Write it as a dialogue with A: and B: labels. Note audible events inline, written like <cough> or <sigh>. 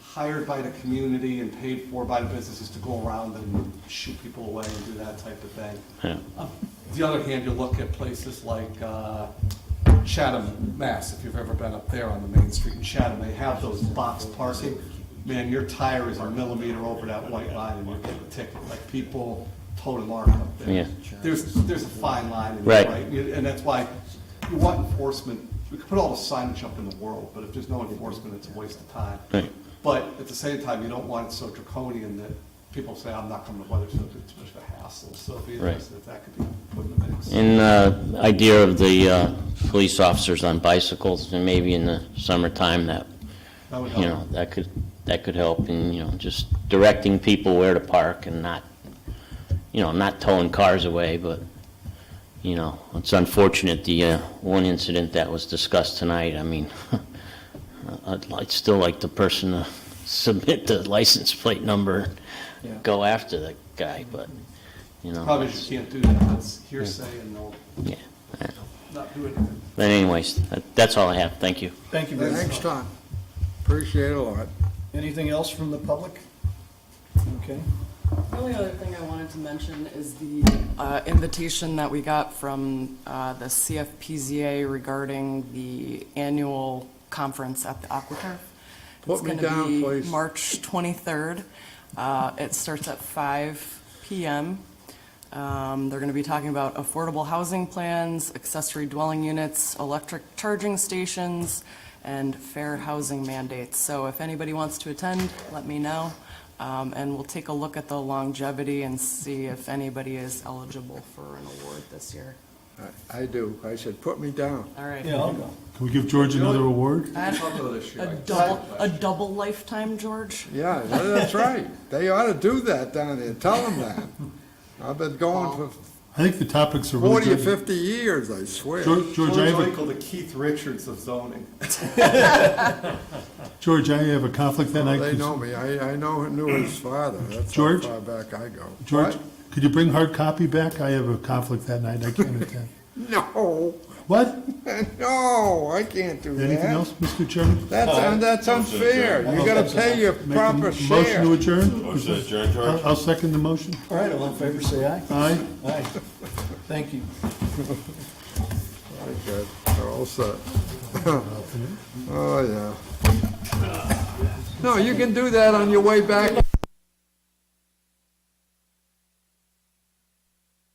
A: hired by the community and paid for by the businesses to go around and shoot people away and do that type of thing.
B: Yeah.
A: On the other hand, you look at places like uh, Chatham, Mass, if you've ever been up there on the main street in Chatham, they have those box parking. Man, your tire is a millimeter over that white line and you're getting a ticket, like people total mark up there.
B: Yeah.
A: There's, there's a fine line in
B: Right.
A: there, right? You- And that's why you want enforcement, we could put all the signage up in the world, but if there's no enforcement, it's a waste of time.
B: Right.
A: But at the same time, you don't want it so draconian that people say, I'm not coming to Weathersfield, it's too much of a hassle. So it'd be
B: Right.
A: interesting if that could be put in the mix.
B: And the idea of the uh, police officers on bicycles, and maybe in the summertime, that,
A: That would
B: you know,
A: help.
B: that could, that could help in, you know, just directing people where to park and not, you know, not towing cars away, but, you know, it's unfortunate, the uh, one incident that was discussed tonight, I mean, <laughs> uh, I'd li- I'd still like the person to <laughs> submit the license plate number,
A: Yeah.
B: and go after the guy, but, you know.
A: Probably just can't do that, that's hearsay and they'll
B: Yeah. yeah.
A: not do anything.
B: But anyways, that- that's all I have. Thank you.
C: Thank you very
D: Thanks,
C: much.
D: Tom. Appreciate it a lot.
C: Anything else from the public? Okay.
E: The only other thing I wanted to mention is the uh, invitation that we got from uh, the CFPZA regarding the annual conference at the AquaTurf.
D: Put me down,
E: It's going to
D: please.
E: be March 23rd. Uh, It starts at 5 PM. Um, They're going to be talking about affordable housing plans, accessory dwelling units, electric charging stations, and fair housing mandates. So if anybody wants to attend, let me know, Um, and we'll take a look at the longevity and see if anybody is eligible for an award this year.
D: I- I do. I said, put me down.
E: All right.
C: Yeah, I'll go.
F: Can we give George another award?
A: We'll talk about this year.
E: A
A: I-
E: double, a double lifetime, George?
D: Yeah, that's right. They ought to do that down there. Tell them that. I've been going for
F: I think the topics are really
D: 40 or
F: good.
D: 50 years, I swear.
F: George, George,
A: George
F: I have
A: Michael, the Keith Richards of zoning.
F: a, George, I have a conflict that night.
D: Oh, They
F: Could-
D: know me. I, I know, knew his father. That's how
F: George?
D: far back I go.
F: George,
D: What?
F: could you bring hard copy back? I have a conflict that night. I can't
D: <laughs>
F: attend.
D: No,
F: What?
D: no, I can't do
F: Anything
D: that.
F: else, Mr. Chairman?
D: That's, un- that's unfair. You gotta pay your
F: Make a
D: proper
F: Motion to
D: share.
F: adjourn?
G: Motion to adjourn, George?
F: I'll I'll second the motion.
C: All right, all in favor, say aye.
F: Aye.
C: Aye. Thank you.
D: Very good. They're all set. <laughs> Oh, yeah. No, you can do that on your way back.